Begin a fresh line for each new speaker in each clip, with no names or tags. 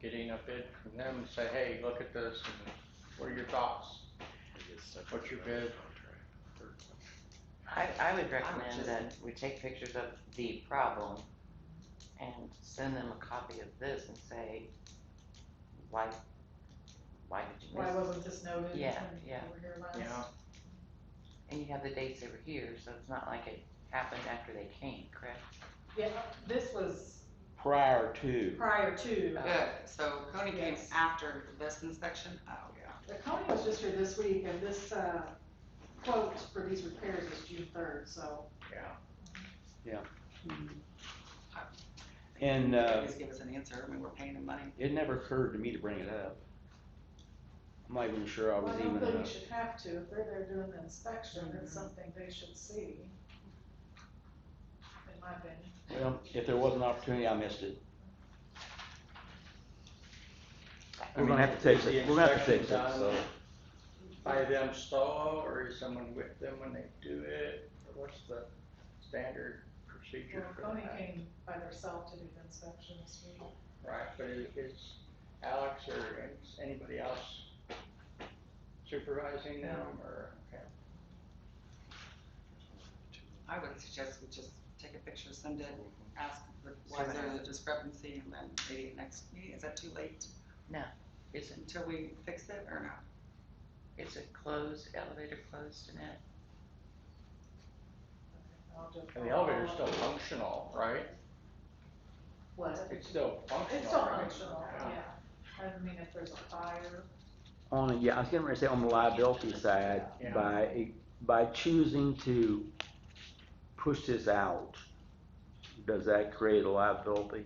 getting a bid from them and say, hey, look at this, and what are your thoughts? What's your bid?
I, I would recommend that we take pictures of the problem and send them a copy of this and say, why, why did you
Why
miss?
wasn't this noted when
Yeah,
we
yeah.
were here last?
You know,
And you have the dates they were here, so it's not like it happened after they came, correct?
Yeah, this was
Prior to,
prior to, uh,
Good, so Coney came
Yes.
after this inspection? Oh, yeah.
the county was just here this week, and this, uh, quote for these repairs was June third, so.
yeah.
Mm-hmm. and, uh,
Please give us an answer, I mean, we're paying them money.
it never occurred to me to bring it up. I'm not even sure I
Well,
was
I
even,
don't think
uh,
you should have to, if they're there doing the inspection,
Mm-hmm.
it's something they should see. In my opinion.
well, if there was an opportunity, I missed it. We're gonna have to fix it, we're gonna have to fix it, so.
By them stall, or is someone with them when they do it, or what's the standard procedure
Well,
for
Coney
that?
came by herself to do the inspection this week.
Right, but i- is Alex or is anybody else supervising them, or, okay,
I would suggest we just take a picture, send it, ask, why is there a discrepancy, and then maybe at next meeting, is that too late
Is it,
until we fix it or no?
is it closed, elevator closed, Annette?
I'll do a
and the
call.
elevator's still functional, right?
What?
It's still functional.
It's still
right?
functional, yeah. I mean, if there's a fire,
On, yeah, I was getting ready to say on the liability side,
Yeah.
by, by choosing to push this out, does that create a liability?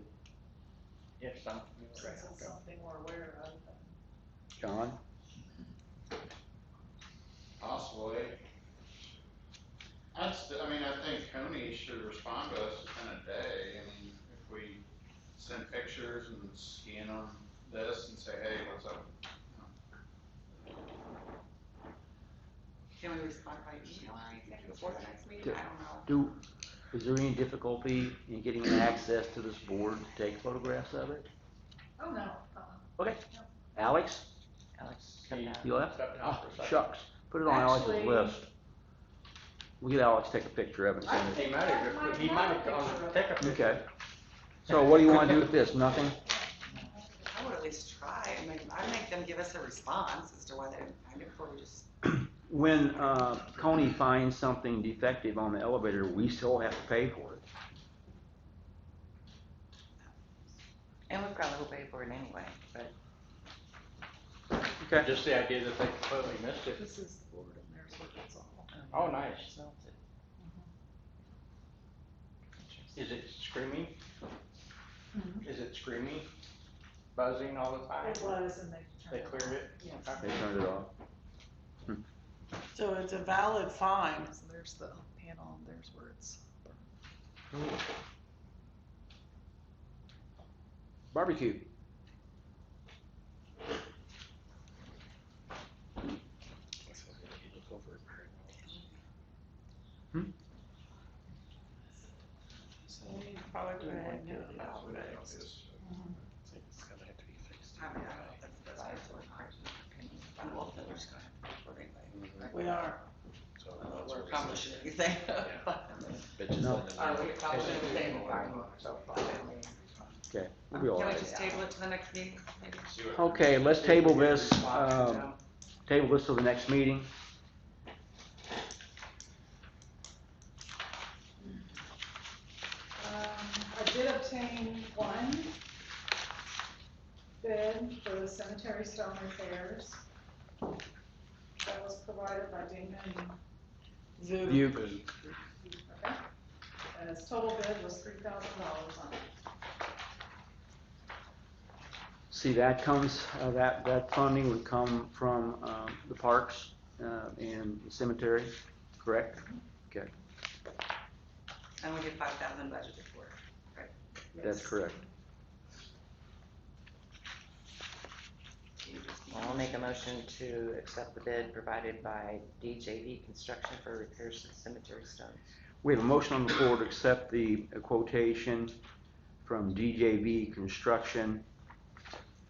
If something.
since it's something we're aware of, then.
John?
Possibly. I'd st- I mean, I think Coney should respond to us within a day, I mean, if we send pictures and scan them this and say, hey, what's up?
Can we respond by email, I think, before the next meeting? I don't
Do,
know.
is there any difficulty in getting access to this board to take photographs of it?
Oh, no, uh-uh.
Alex,
Alex,
Can you-
you left?
Stepped out
Oh,
for a second.
shucks, put it on Alex's
Actually-
list. We'll get Alex to take a picture of it. and
I
send it.
think he might have, he might have gone, take a picture.
Okay. So what do you wanna do with this? Nothing?
I would at least try, I mean, I'd make them give us a response as to why they didn't find it before we just
When, uh, Coney finds something defective on the elevator, we still have to pay for it.
and we probably will pay for it anyway, but
Okay.
Just the idea that they completely missed it.
This is the board and there's what it's all.
um,
Oh, nice.
Smells it. Interesting.
Is it screaming? Is it screaming? Buzzing all the time?
It was and they
They
turned it.
cleared it?
Yes.
Okay.
They turned it off.
So it's a valid fine.
So there's the panel and there's where it's.
Barbecue.
We probably would have known about it.
I mean, I don't know if that's the best way to work. I'm all for just going for it anyway.
We are.
I don't know if We're accomplishing anything.
No.
Are we accomplishing anything?
Okay, we'll be all
Can we
right.
just table it to the next meeting? maybe?
See what-
Okay, let's table this, um, table this till the next meeting.
Um, I did obtain one bid for the cemetery stone repairs. That was provided by Damon.
Zoo.
You,
Okay. And his total bid was three thousand dollars on it.
see, that comes, uh, that, that funding would come from, um, the parks, uh, and cemetery, correct?
And we did five thousand budgeted for it.
That's
Yes.
correct.
You just-
I'll make a motion to accept the bid provided by DJV Construction for repairs to the cemetery stones.
We have a motion on the floor to accept the quotation from DJV Construction